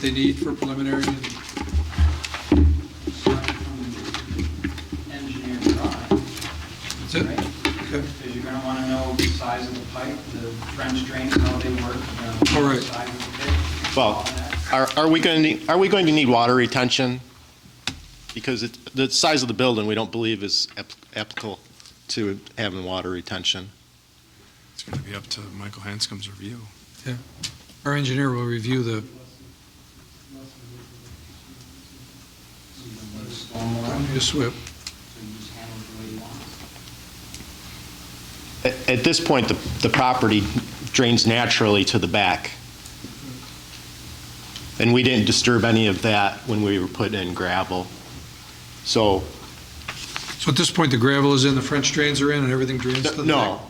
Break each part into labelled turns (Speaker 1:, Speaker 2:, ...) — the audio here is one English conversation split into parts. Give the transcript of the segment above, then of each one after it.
Speaker 1: they need for preliminary. and-
Speaker 2: engineered drawing,
Speaker 1: That's it?
Speaker 2: right?
Speaker 1: Okay.
Speaker 2: Because you're gonna wanna know the size of the pipe, the French drains, how they work, you
Speaker 1: All
Speaker 2: know,
Speaker 1: right.
Speaker 2: the size of the pit. all
Speaker 3: Well,
Speaker 2: that.
Speaker 3: are, are we going to, need- are we going to need water retention? Because it, the size of the building, we don't believe is ap- applicable to having water retention.
Speaker 4: It's going to be up to Michael Hanscom's review.
Speaker 1: Our engineer will review the,
Speaker 2: So you don't need stormwater,
Speaker 1: the SWIP.
Speaker 2: so you just handle it the way you want.
Speaker 3: At, at this point, the, the property drains naturally to the back. And we didn't disturb any of that when we were putting in gravel. So,
Speaker 1: So at this point, the gravel is in, the French drains are in, and everything drains to the
Speaker 3: no,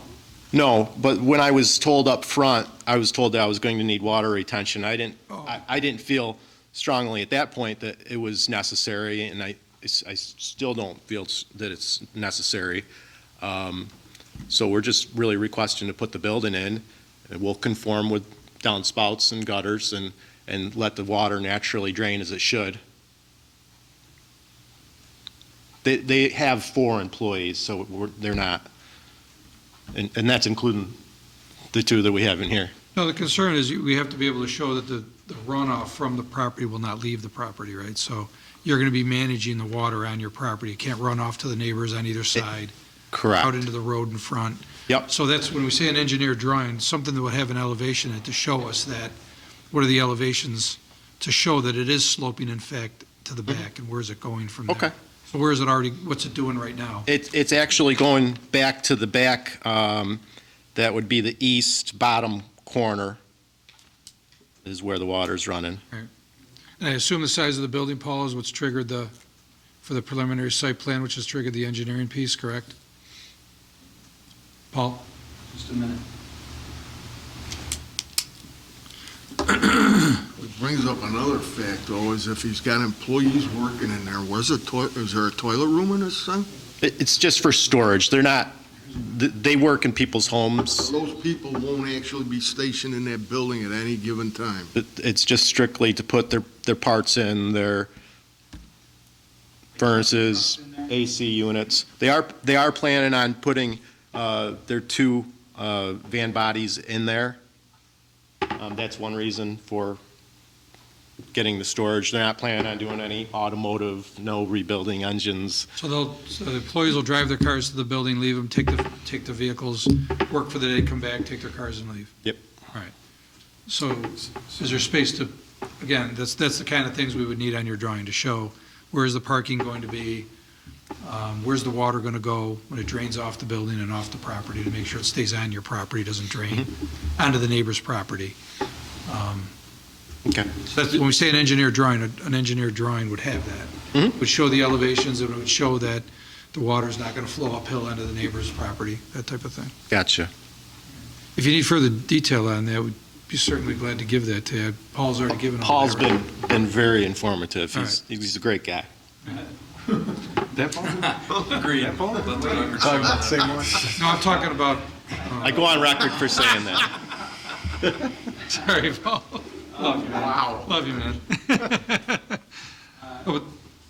Speaker 3: no, but when I was told up front, I was told that I was going to need water retention. I didn't
Speaker 1: Oh.
Speaker 3: I, I didn't feel strongly at that point that it was necessary, and I, it's- I still don't feel s- that it's necessary. Um, So we're just really requesting to put the building in, and we'll conform with downspouts and gutters and, and let the water naturally drain as it should. They, they have four employees, so we're, they're not, and, and that's including the two that we have in here.
Speaker 1: No, the concern is you- we have to be able to show that the the runoff from the property will not leave the property, right? So you're going to be managing the water on your property. It can't run off to the neighbors on either side,
Speaker 3: Correct.
Speaker 1: out into the road in front.
Speaker 3: Yep.
Speaker 1: So that's when we say an engineer drawing, something that would have an elevation in it to show us that, what are the elevations to show that it is sloping in fact to the back, and where's it going from there?
Speaker 3: Mm-hmm. Okay.
Speaker 1: So where is it already, what's it doing right now?
Speaker 3: It's, it's actually going back to the back, um, that would be the east bottom corner is where the water's running.
Speaker 1: And I assume the size of the building, Paul, is what's triggered the, for the preliminary site plan, which has triggered the engineering piece, correct? Paul?
Speaker 2: Just a minute.
Speaker 5: Which brings up another fact, though, is if he's got employees working in there, was a toilet, is there a toilet room in this thing?
Speaker 3: It, it's just for storage. They're not, th- they work in people's homes.
Speaker 5: Those people won't actually be stationed in that building at any given time.
Speaker 3: It- It's just strictly to put their, their parts in, their furnaces, AC units. They are, they are planning on putting, uh, their two, uh, van bodies in there. Um, that's one reason for getting the storage. They're not planning on doing any automotive, no rebuilding engines.
Speaker 1: So they'll, so the employees will drive their cars to the building, leave them, take the, take the vehicles, work for the day, come back, take their cars and leave?
Speaker 3: Yep.
Speaker 1: All right. So is there space to, again, that's, that's the kind of things we would need on your drawing to show. Where is the parking going to be? Um, Where's the water going to go when it drains off the building and off the property to make sure it stays on your property, doesn't drain
Speaker 3: Mm-hmm.
Speaker 1: onto the neighbor's property? Um,
Speaker 3: Okay.
Speaker 1: so that's, when we say an engineer drawing, a- an engineer drawing would have that.
Speaker 3: Mhm.
Speaker 1: Would show the elevations, it would show that the water's not going to flow uphill onto the neighbor's property, that type of thing.
Speaker 3: Gotcha.
Speaker 1: If you need further detail on that, we'd be certainly glad to give that to you. Paul's already given all
Speaker 3: Paul's
Speaker 1: that.
Speaker 3: been, been very informative.
Speaker 1: All
Speaker 3: He's, he's a great guy.
Speaker 1: No, I'm talking about,
Speaker 3: I go on record for saying that.
Speaker 1: sorry, Paul. Wow. Love you, man. Oh,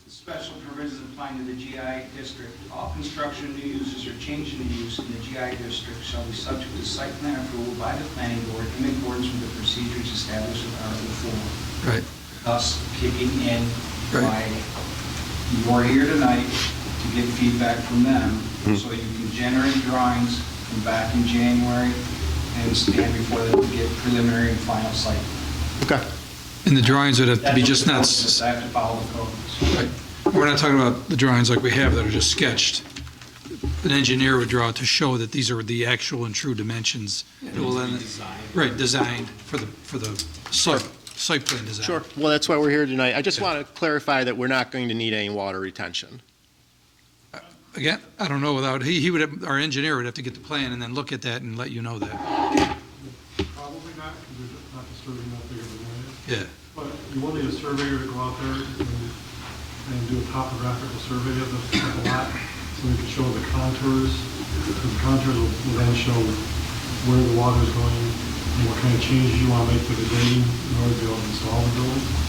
Speaker 2: Special provisions applying to the GI district. All construction, new uses, or change in use in the GI district shall be subject to site plan approval by the planning board in accordance with the procedures established in Article 4.
Speaker 1: Right.
Speaker 2: Thus kicking in
Speaker 1: Right.
Speaker 2: why you are here tonight to get feedback from them,
Speaker 1: Hmm.
Speaker 2: so you can generate drawings from back in January and stand before them to get preliminary and final site.
Speaker 3: Okay.
Speaker 1: And the drawings would have to
Speaker 2: That's
Speaker 1: be
Speaker 2: what
Speaker 1: just
Speaker 2: the
Speaker 1: not,
Speaker 2: code
Speaker 1: s-
Speaker 2: says. I have to follow the code.
Speaker 1: we're not talking about the drawings like we have that are just sketched. An engineer would draw to show that these are the actual and true dimensions. It will then- Right, designed for the, for the site, site plan design.
Speaker 3: Sure. Well, that's why we're here tonight. I just
Speaker 1: Yeah.
Speaker 3: want to clarify that we're not going to need any water retention.
Speaker 1: Again, I don't know without, he, he would, have- our engineer would have to get the plan and then look at that and let you know that.
Speaker 6: Probably not, because we're just not disturbing that big of an
Speaker 1: Yeah.
Speaker 6: area. But you will need a surveyor to go out there and, and do a topographical survey of the of the lot, so we can show the contours. The contours will will then show where the water's going, and what kind of changes you want to make to the grading in order to be able to install the building.